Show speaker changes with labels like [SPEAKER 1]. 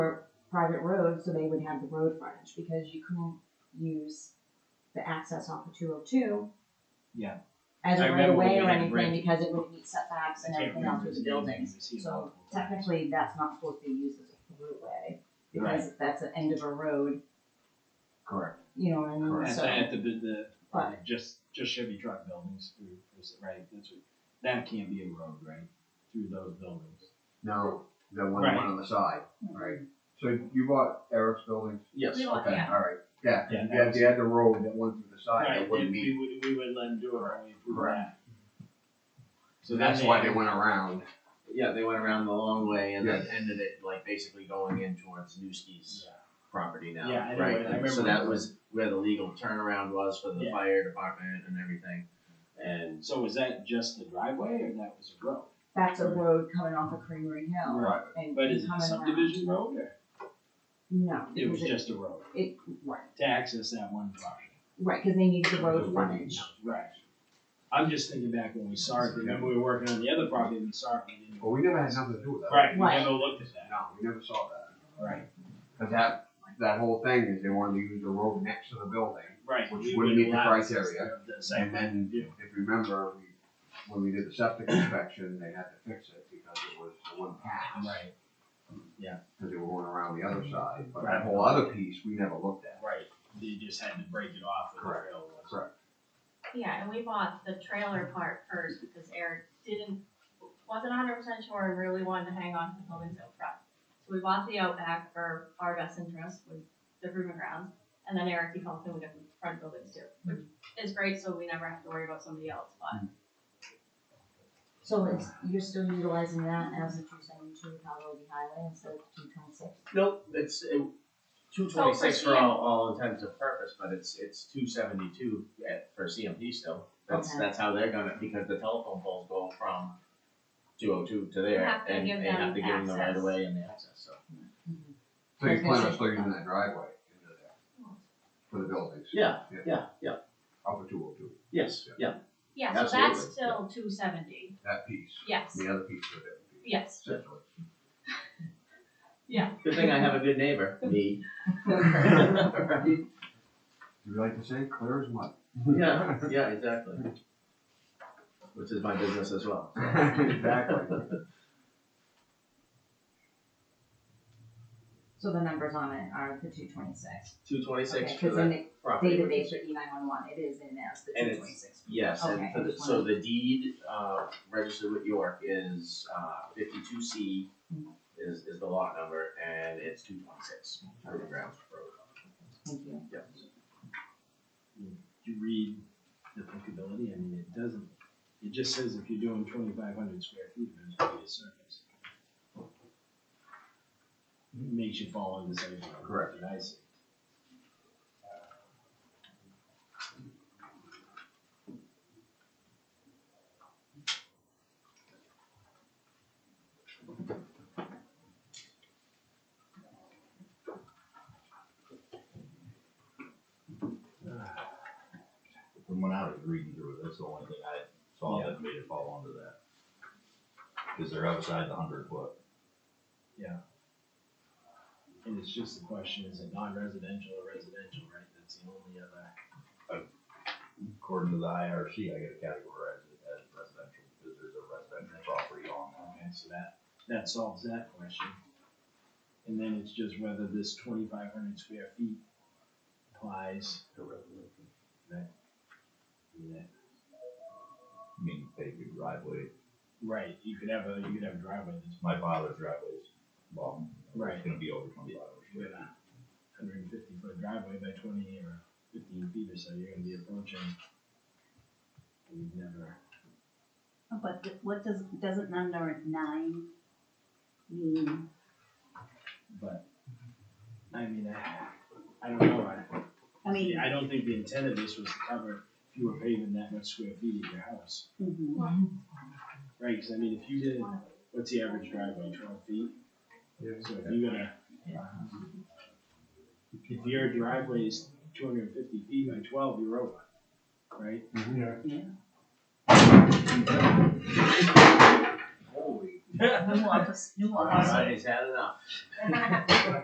[SPEAKER 1] private road, so they would have the road frontage, because you couldn't use the access off of two oh two.
[SPEAKER 2] Yeah.
[SPEAKER 1] As
[SPEAKER 2] I
[SPEAKER 1] a right of
[SPEAKER 2] remember when
[SPEAKER 1] way
[SPEAKER 2] we
[SPEAKER 1] or
[SPEAKER 2] had
[SPEAKER 1] anything,
[SPEAKER 2] red-
[SPEAKER 1] because it would meet setbacks
[SPEAKER 2] I
[SPEAKER 1] and
[SPEAKER 2] can't
[SPEAKER 1] everything else
[SPEAKER 2] remember
[SPEAKER 1] with
[SPEAKER 2] the
[SPEAKER 1] the
[SPEAKER 2] name,
[SPEAKER 1] buildings.
[SPEAKER 2] we've seen it
[SPEAKER 1] So
[SPEAKER 2] multiple times.
[SPEAKER 1] technically, that's not supposed to be used as a roadway, because that's the end of a road,
[SPEAKER 2] Correct.
[SPEAKER 1] you know what I mean,
[SPEAKER 2] At the,
[SPEAKER 1] so,
[SPEAKER 2] at the, the,
[SPEAKER 1] but,
[SPEAKER 2] just, just Chevy truck buildings through, is it right, that's what, that can't be a road, right, through those buildings.
[SPEAKER 3] No, the one,
[SPEAKER 2] Right.
[SPEAKER 3] one on the side, right? So you bought Eric's buildings?
[SPEAKER 2] Yes.
[SPEAKER 1] Hmm. We want-
[SPEAKER 3] Okay,
[SPEAKER 1] yeah.
[SPEAKER 3] all right, yeah, 'cause
[SPEAKER 2] Yeah,
[SPEAKER 3] you had,
[SPEAKER 2] that
[SPEAKER 3] you had the road that went through the side
[SPEAKER 2] Right,
[SPEAKER 3] that
[SPEAKER 2] we,
[SPEAKER 3] wouldn't meet,
[SPEAKER 2] we would, we would let them do it, right, we approve that.
[SPEAKER 3] so that's why they
[SPEAKER 2] would.
[SPEAKER 3] went around.
[SPEAKER 4] Yeah, they went around the long way and then
[SPEAKER 3] Yes.
[SPEAKER 4] ended it like basically going in towards Newski's property now,
[SPEAKER 2] Yeah, I know,
[SPEAKER 4] right?
[SPEAKER 2] I
[SPEAKER 4] And
[SPEAKER 2] remember
[SPEAKER 4] So that
[SPEAKER 2] that.
[SPEAKER 4] was where the legal turnaround was for the
[SPEAKER 2] Yeah.
[SPEAKER 4] fire department and everything. And
[SPEAKER 2] So was that just the driveway, or that was a road?
[SPEAKER 1] that's a road coming off of Creamery Hill
[SPEAKER 3] Right.
[SPEAKER 1] and coming around.
[SPEAKER 2] But is it a subdivision road, or?
[SPEAKER 1] No.
[SPEAKER 2] It was
[SPEAKER 1] because
[SPEAKER 2] just a road,
[SPEAKER 1] It, right,
[SPEAKER 2] to access that one property.
[SPEAKER 1] right, cause they need the road
[SPEAKER 3] The
[SPEAKER 1] frontage.
[SPEAKER 2] Right. I'm just thinking back when we saw it, remember we were working on the other property, and we saw it, we didn't.
[SPEAKER 3] Well, we never had something to do with that.
[SPEAKER 2] Right, we
[SPEAKER 1] Right.
[SPEAKER 2] never looked at that.
[SPEAKER 3] No, we never saw that,
[SPEAKER 2] Right,
[SPEAKER 3] cause that, that whole thing is they wanted to use the road next to the building.
[SPEAKER 2] right.
[SPEAKER 3] Which
[SPEAKER 2] we
[SPEAKER 3] wouldn't meet the
[SPEAKER 2] allow this as
[SPEAKER 3] criteria,
[SPEAKER 2] the- the site
[SPEAKER 3] And
[SPEAKER 2] plan
[SPEAKER 3] then, if
[SPEAKER 2] review.
[SPEAKER 3] you remember, we, when we did the septic inspection, they had to fix it because it was the one pass.
[SPEAKER 2] Right,
[SPEAKER 3] Cause they were going around the other side, but
[SPEAKER 2] Right.
[SPEAKER 3] that whole other piece, we never looked at.
[SPEAKER 2] right, you just had to break it off with a
[SPEAKER 3] Correct.
[SPEAKER 2] rail. or something.
[SPEAKER 3] Correct.
[SPEAKER 5] Yeah, and we bought the trailer part first because Eric didn't, wasn't hundred percent sure and really wanted to hang on to the buildings out front. So we bought the outback for our best interest with the room and grounds, and then Eric, he helped him with the front buildings too, which is great, so we never have to worry about somebody else, but
[SPEAKER 1] So it's, you're still utilizing that as a two seventy-two Calhoun Highway instead of two twenty-six?
[SPEAKER 4] Nope, it's two twenty six for all all intents and purpose, but it's it's two seventy two at for CMP still. That's
[SPEAKER 1] Okay.
[SPEAKER 4] that's how they're gonna because the telephone poles go from two oh two to there
[SPEAKER 5] have to
[SPEAKER 4] and
[SPEAKER 5] give
[SPEAKER 4] they have
[SPEAKER 5] them
[SPEAKER 4] to give them the right
[SPEAKER 5] access.
[SPEAKER 4] of way and the access, so.
[SPEAKER 3] So you
[SPEAKER 1] Okay,
[SPEAKER 3] plan on
[SPEAKER 1] so-
[SPEAKER 3] still using that driveway into there? For the buildings?
[SPEAKER 4] Yeah,
[SPEAKER 3] Yeah.
[SPEAKER 4] yeah, yeah,
[SPEAKER 3] Up at two oh two,
[SPEAKER 4] yes, yeah,
[SPEAKER 5] yeah, so that's
[SPEAKER 4] Absolutely,
[SPEAKER 5] still two seventy,
[SPEAKER 3] that piece,
[SPEAKER 5] yes,
[SPEAKER 3] the other piece of it,
[SPEAKER 5] yes.
[SPEAKER 3] essentially.
[SPEAKER 4] good thing I have a good neighbor, me.
[SPEAKER 3] Do you like to say clear as mud?
[SPEAKER 4] Yeah, yeah, exactly. Which is my business as well.
[SPEAKER 3] Exactly.
[SPEAKER 1] So the numbers on it are the two twenty-six?
[SPEAKER 4] Two twenty-six
[SPEAKER 1] Okay,
[SPEAKER 4] for
[SPEAKER 1] cause in
[SPEAKER 4] that
[SPEAKER 1] the
[SPEAKER 4] property. which
[SPEAKER 1] database
[SPEAKER 4] is-
[SPEAKER 1] for E nine one one, it is in there as the
[SPEAKER 4] And
[SPEAKER 1] two
[SPEAKER 4] it's-
[SPEAKER 1] twenty-six.
[SPEAKER 4] Yes,
[SPEAKER 1] Okay,
[SPEAKER 4] and for
[SPEAKER 1] I
[SPEAKER 4] the,
[SPEAKER 1] just
[SPEAKER 4] so the deed, uh, registered with York is, uh, fifty-two C is, is the lot number, and it's two twenty-six, River Grounds Road.
[SPEAKER 1] Thank you.
[SPEAKER 4] Yep.
[SPEAKER 2] You read the applicability, I mean, it doesn't, it just says if you're doing twenty-five hundred square feet, there's gonna be a surface. Makes you fall into the same. one,
[SPEAKER 3] Correct.
[SPEAKER 2] that I see.
[SPEAKER 6] From when I was reading through it, that's the only thing I saw
[SPEAKER 2] Yeah.
[SPEAKER 6] that made it fall under that. Cause they're outside the hundred foot.
[SPEAKER 2] And it's just the question, is it non-residential or residential, right, that's the only other. uh,
[SPEAKER 6] According to the IRC, I gotta categorize it as residential, because there's a residential property on that.
[SPEAKER 2] Okay, so that, that solves that question. And then it's just whether this twenty-five hundred square feet applies. To residential. That, that,
[SPEAKER 6] I mean, paved driveway,
[SPEAKER 2] right, you could have a, you could have a driveway that's,
[SPEAKER 6] my father's driveway's, well,
[SPEAKER 2] Right.
[SPEAKER 6] it's gonna be over twenty-five hours.
[SPEAKER 2] you got a hundred and fifty foot driveway by twenty or fifteen feet or so, you're gonna be approaching. We've never,
[SPEAKER 7] But th- what does, doesn't number nine mean?
[SPEAKER 2] but, I mean, I, I don't know, I.
[SPEAKER 7] I mean,
[SPEAKER 2] Yeah, I don't think the intent of this was to cover if you were paving that much square feet of your house,
[SPEAKER 7] mhm.
[SPEAKER 2] right? Because I mean, if you did, what's the average driveway, twelve feet? So if you're gonna, if your driveway is two hundred and fifty feet by twelve, you're over, right?
[SPEAKER 3] Holy
[SPEAKER 7] nuance, nuance.
[SPEAKER 4] Alright, he's had enough.